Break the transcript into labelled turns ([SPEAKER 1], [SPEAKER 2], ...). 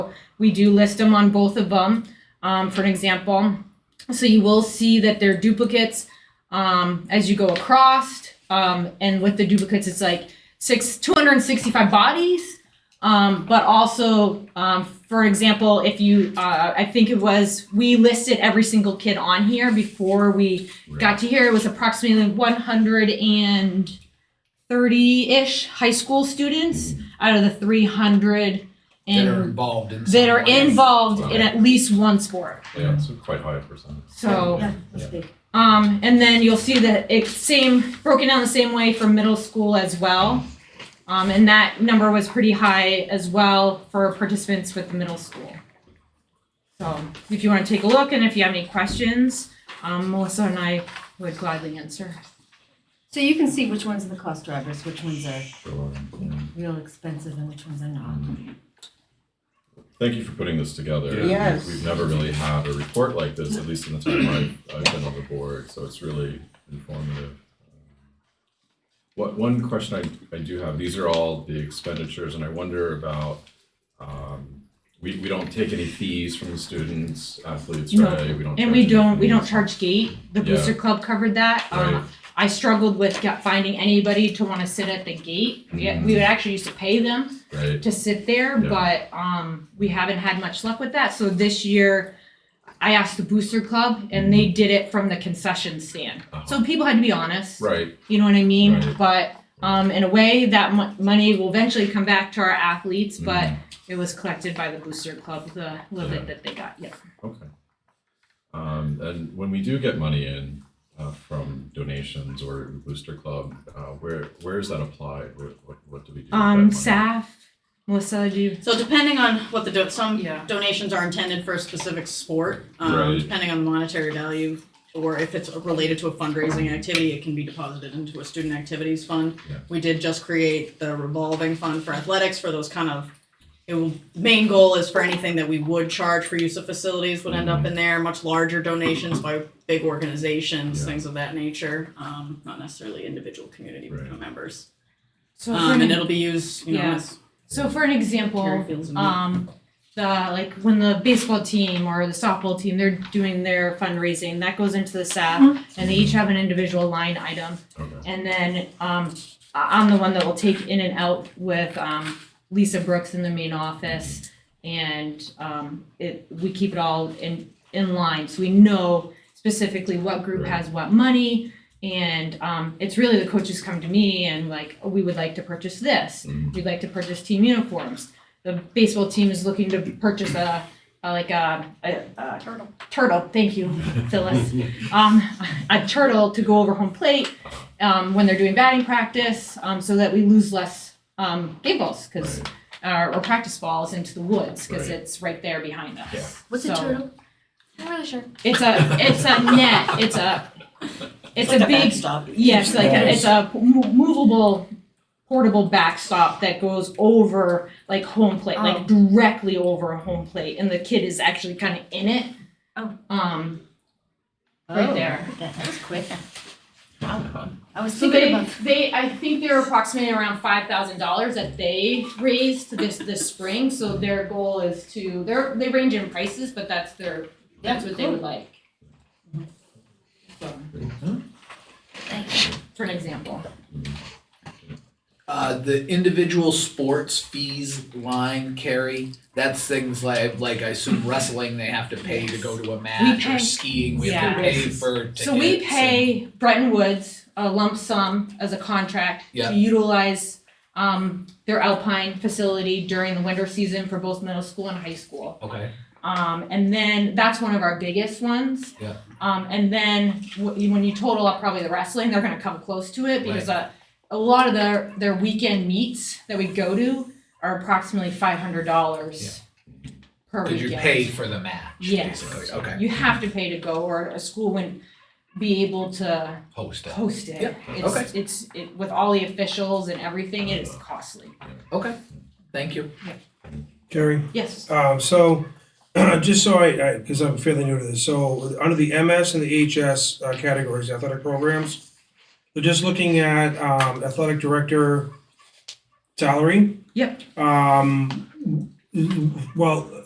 [SPEAKER 1] We do list them on both of them, um, for an example. So you will see that they're duplicates, um, as you go across. Um, and with the duplicates, it's like six, two hundred and sixty-five bodies. Um, but also, um, for example, if you, uh, I think it was, we listed every single kid on here before we got to here. It was approximately one hundred and thirty-ish high school students out of the three hundred
[SPEAKER 2] Mm-hmm. that are
[SPEAKER 1] and
[SPEAKER 2] involved in
[SPEAKER 1] that are involved
[SPEAKER 2] some way.
[SPEAKER 1] in at least one sport.
[SPEAKER 3] Yeah, it's a quite high percentage.
[SPEAKER 1] So.
[SPEAKER 4] Yeah, that's big.
[SPEAKER 1] Um, and then you'll see that it's same, broken down the same way for middle school as well. Um, and that number was pretty high as well for participants with the middle school. So if you want to take a look and if you have any questions, um, Melissa and I would gladly answer.
[SPEAKER 4] So you can see which ones are the cost drivers, which ones are
[SPEAKER 3] Sure. yeah.
[SPEAKER 4] real expensive and which ones are not.
[SPEAKER 3] Thank you for putting this together.
[SPEAKER 5] Yeah. Yes.
[SPEAKER 3] We've never really had a report like this, at least in the time I've, I've been on the board, so it's really informative. What, one question I, I do have, these are all the expenditures, and I wonder about, um, we, we don't take any fees from the students, athletes,
[SPEAKER 1] No.
[SPEAKER 3] right? We don't.
[SPEAKER 1] And we
[SPEAKER 3] charge any
[SPEAKER 1] don't, we don't
[SPEAKER 3] fees.
[SPEAKER 1] charge gate. The Booster Club covered that.
[SPEAKER 3] Right.
[SPEAKER 1] Um, I struggled with get- finding anybody to want to sit at the gate. We,
[SPEAKER 3] Mhm.
[SPEAKER 1] we would actually used to pay them.
[SPEAKER 3] Right,
[SPEAKER 1] to sit there,
[SPEAKER 3] Yeah.
[SPEAKER 1] but um, we haven't had much luck with that. So this year, I asked the Booster Club, and
[SPEAKER 3] Mm-hmm.
[SPEAKER 1] they did it from the concession stand. So people had to be honest.
[SPEAKER 3] Uh-huh. right,
[SPEAKER 1] You know what I mean?
[SPEAKER 3] Right.
[SPEAKER 1] But um, in a way, that mo- money will eventually come back to our athletes, but it was collected by the Booster Club, the little
[SPEAKER 3] Mm-hmm. Yeah.
[SPEAKER 1] bit that they got. Yeah.
[SPEAKER 3] okay. Um, and when we do get money in, uh, from donations or Booster Club, uh, where, where is that applied? What, what, what do we do? with that
[SPEAKER 1] Um,
[SPEAKER 3] money?
[SPEAKER 1] SAF, Melissa, do you?
[SPEAKER 6] So depending on what the, do- some
[SPEAKER 1] Yeah.
[SPEAKER 6] donations are intended for a specific sport, um,
[SPEAKER 3] Right.
[SPEAKER 6] depending on the monetary value, or if it's related to a fundraising activity, it can be deposited into a student activities fund.
[SPEAKER 3] Yeah.
[SPEAKER 6] We did just create the revolving fund for athletics for those kind of, it will, main goal is for anything that we would charge for use of facilities would end
[SPEAKER 3] Mm-hmm.
[SPEAKER 6] up in there, much larger donations by big organizations,
[SPEAKER 3] Yeah.
[SPEAKER 6] things of that nature, um, not necessarily individual community
[SPEAKER 3] Right.
[SPEAKER 6] members.
[SPEAKER 1] So for,
[SPEAKER 6] Um,
[SPEAKER 1] an,
[SPEAKER 6] and it'll be used, you know,
[SPEAKER 1] Yeah.
[SPEAKER 6] as
[SPEAKER 1] so for an example,
[SPEAKER 6] Terry Fields and
[SPEAKER 1] um the like when the baseball team or the softball team they're doing their fundraising that goes into the SAF and they each have an individual line item
[SPEAKER 3] Okay.
[SPEAKER 1] and then um I- I'm the one that will take in and out with um Lisa Brooks in the main office and um it we keep it all in in line so we know specifically what group
[SPEAKER 3] Right.
[SPEAKER 1] has what money and um it's really the coaches come to me and like oh, we would like to purchase this
[SPEAKER 3] Mm.
[SPEAKER 1] we'd like to purchase team uniforms the baseball team is looking to purchase a, a like a, a, a turtle turtle thank you Phyllis um a turtle to go over home plate um, when they're doing batting practice um, so that we lose less um, game balls because
[SPEAKER 3] Right.
[SPEAKER 1] or, or practice balls into the woods because
[SPEAKER 3] Right.
[SPEAKER 1] it's right there behind us.
[SPEAKER 3] Yeah.
[SPEAKER 4] What's
[SPEAKER 1] So,
[SPEAKER 4] a turtle? I'm not really sure.
[SPEAKER 1] It's a it's a net. It's a it's a big
[SPEAKER 5] stop.
[SPEAKER 1] yes like a, it's a mo- movable portable backstop that goes over like home plate
[SPEAKER 4] Oh.
[SPEAKER 1] like directly over a home plate and the kid is actually kind of in it.
[SPEAKER 4] Oh.
[SPEAKER 1] Um. Right there.
[SPEAKER 4] That, Oh, that was quick. Wow. I was
[SPEAKER 1] So they
[SPEAKER 4] thinking about
[SPEAKER 1] they I think they're approximately around five thousand dollars that they raised this this spring. So their goal is to they're they range in prices, but that's their that's what they would like. So for an example.
[SPEAKER 2] Uh, the individual sports fees line carry. That's things like like I assume wrestling they have to pay to go to a match
[SPEAKER 1] pay-
[SPEAKER 2] or skiing we have to
[SPEAKER 1] yeah.
[SPEAKER 2] pay for tickets.
[SPEAKER 1] So we
[SPEAKER 2] and-
[SPEAKER 1] pay Bretton Woods a lump sum as a contract
[SPEAKER 2] Yeah.
[SPEAKER 1] to utilize um their Alpine facility during the winter season for both middle school and high school.
[SPEAKER 2] Okay.
[SPEAKER 1] Um, and then that's one of our biggest ones.
[SPEAKER 2] Yeah.
[SPEAKER 1] Um, and then wh- you- when you total up probably the wrestling, they're gonna come close to it because uh, a lot of their, their weekend meets that we go to are approximately five hundred dollars per
[SPEAKER 2] Did
[SPEAKER 1] weekend.
[SPEAKER 2] you pay for the match?
[SPEAKER 1] Yes.
[SPEAKER 2] Basically. Okay.
[SPEAKER 1] You have to pay to go or a school wouldn't be able to
[SPEAKER 2] Host it.
[SPEAKER 1] host it.
[SPEAKER 2] Yeah, okay.
[SPEAKER 1] It's, it's, it, with all the officials and everything, it is costly.
[SPEAKER 2] Okay. Thank you.
[SPEAKER 7] Gary,
[SPEAKER 1] Yes,
[SPEAKER 7] uh, so, just so I, I, because I'm fairly new to this, so, under the MS and the HS uh, categories, athletic programs, we're just looking at, um, athletic director salary.
[SPEAKER 1] Yep.
[SPEAKER 7] Um, well,